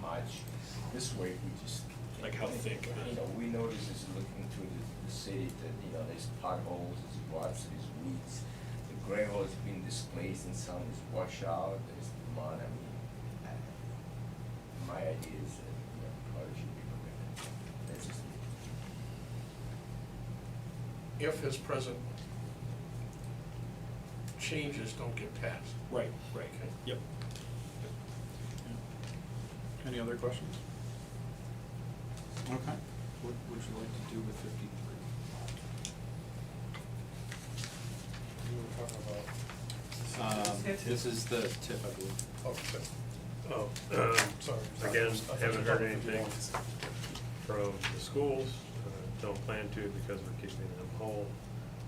much. This way, we just. Like how thick? You know, we notice is looking through the, the city that, you know, there's potholes, there's ruts, there's weeds. The gravel has been displaced and some is washed out, there's mud, I mean, I- my idea is that, you know, probably should be permitted. That's just me. if his present changes don't get passed. Right, right, Okay. yep. Any other questions? Okay, what would you like to do with fifty-three? You were talking Um, this is the tip, I believe. about, Oh, um, Sorry. again, I haven't thought you heard talked to the anything ones. from the schools, uh, don't plan to because we're keeping them whole.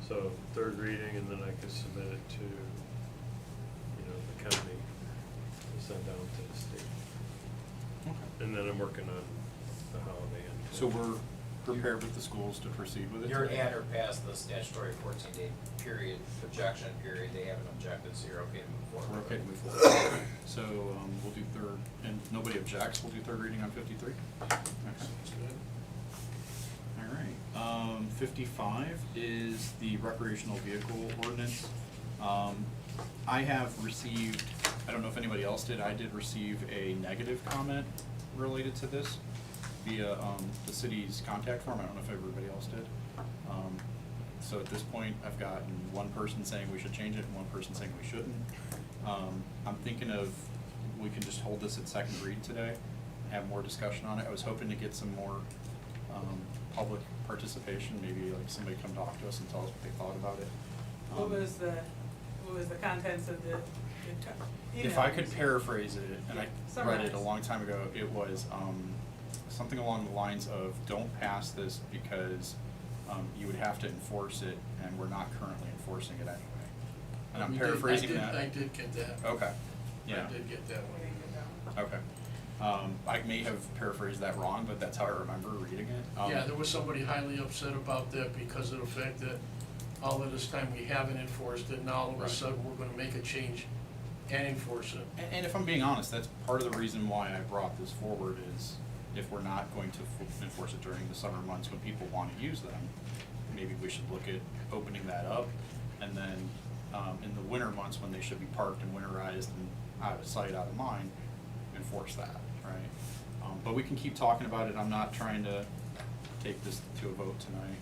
So third reading and then I could submit it to, you know, the county, and send down to the state. Okay. And then I'm working on the holiday. and- So we're prepared with the schools to proceed with it? You're today? at or past the statutory fourteen day period, objection period, they haven't objected, so you're okay to move forward. We're okay to move forward. So, um, we'll do third, and nobody objects, we'll do third reading on fifty-three? Okay. All right, um, fifty-five is the recreational vehicle ordinance. Um, I have received, I don't know if anybody else did, I did receive a negative comment related to this via, um, the city's contact form, I don't know if everybody else did. Um, so at this point, I've gotten one person saying we should change it and one person saying we shouldn't. Um, I'm thinking of, we can just hold this at second read today, have more discussion on it. I was hoping to get some more, um, public participation, maybe like somebody come talk to us and tell us what they thought about it. What Um, was the, what was the contents of the, the t- If I email? could paraphrase it, and I read it Summarize. a long time ago, it was, um, something along the lines of, don't pass this because, um, you would have to enforce it, and we're not currently enforcing it anyway. And I'm We did- I paraphrasing did- that. I did get that. Okay, yeah, I did get that Where did one. it go? okay. Um, I may have paraphrased that wrong, but that's how I remember reading it. Um, Yeah, there was somebody highly upset about that because of the fact that all of this time we haven't enforced it, now all of a Right. sudden we're gonna make a change and enforce it. And, and if I'm being honest, that's part of the reason why I brought this forward is if we're not going to f- enforce it during the summer months when people want to use them, maybe we should look at opening that up. And then, um, in the winter months when they should be parked and winterized and out of sight, out of mind, enforce that, right? Um, but we can keep talking about it. I'm not trying to take this to a vote tonight.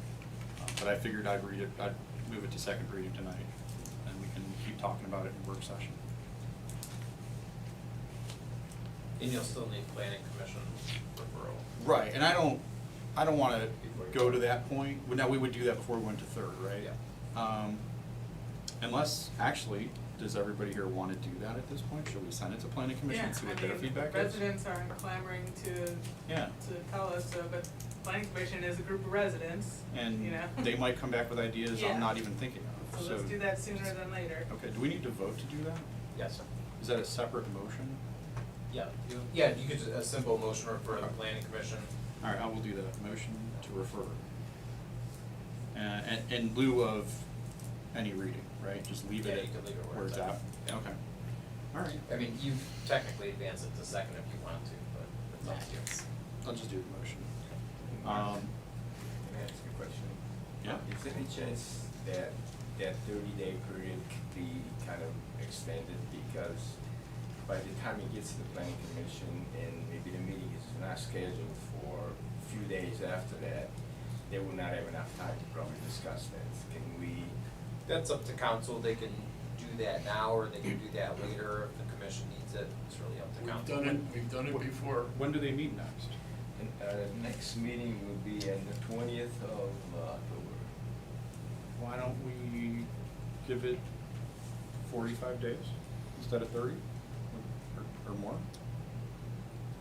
Uh, But I figured I'd read it, I'd move it to second reading tonight and we can keep talking about it in work session. And you'll still need planning commission referral. Right, and I don't, I don't wanna Before you- go to that point, Well, now, we would do that before we went to third, right? Yeah. Um, unless, actually, does everybody here wanna do that at this point, should we send it to planning commission, Yeah, and see what I their mean, feedback is? Residents are clamoring to, Yeah, to tell us, so, but planning commission is a group of residents, you and know? they might come back with ideas Yeah. I'm not even thinking of, so. So let's do that sooner than later. Okay, do we need to vote to do that? Yes. Is that a separate motion? Yeah, you, yeah, you could, a simple motion refer to the planning commission. Alright, I will do that, motion to refer. Uh, and, in lieu of any reading, right, just leave Yeah, it you could leave it where where it's it's at. at, Yeah. okay. Alright, I mean, you technically advance it to second if you want to, but it's up to you. I'll just do the motion. Um, Can I ask you a question? Yeah. Is there any chance that that thirty day period could be kind of extended because by the time it gets to the planning commission and maybe the meeting is not scheduled for a few days after that, they will not have enough time to probably discuss that. Can we, That's up to council, they can do that now or they can do that later if the commission needs it, it's really up to We've council. done it, we've done it before. when do they meet next? and, uh, the next meeting will be on the twentieth of uh, October. Why don't we give it forty-five days instead of thirty or, or more?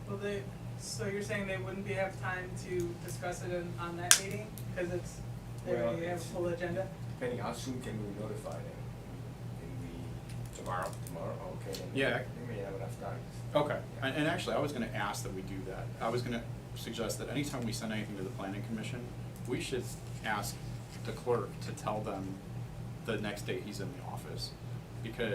Well, they, so you're saying they wouldn't be, have time to discuss it in, on that meeting, cause it's, they Well, already have a it's- full agenda? Depending, how soon can we notify them? Can we? Tomorrow. Tomorrow, Oh, okay. then Yeah. They may have enough time. Okay, Yeah. and, and actually, I was gonna ask that we do that. I was gonna suggest that anytime we send anything to the planning commission, we should ask the clerk to tell them the next day he's in the office. Because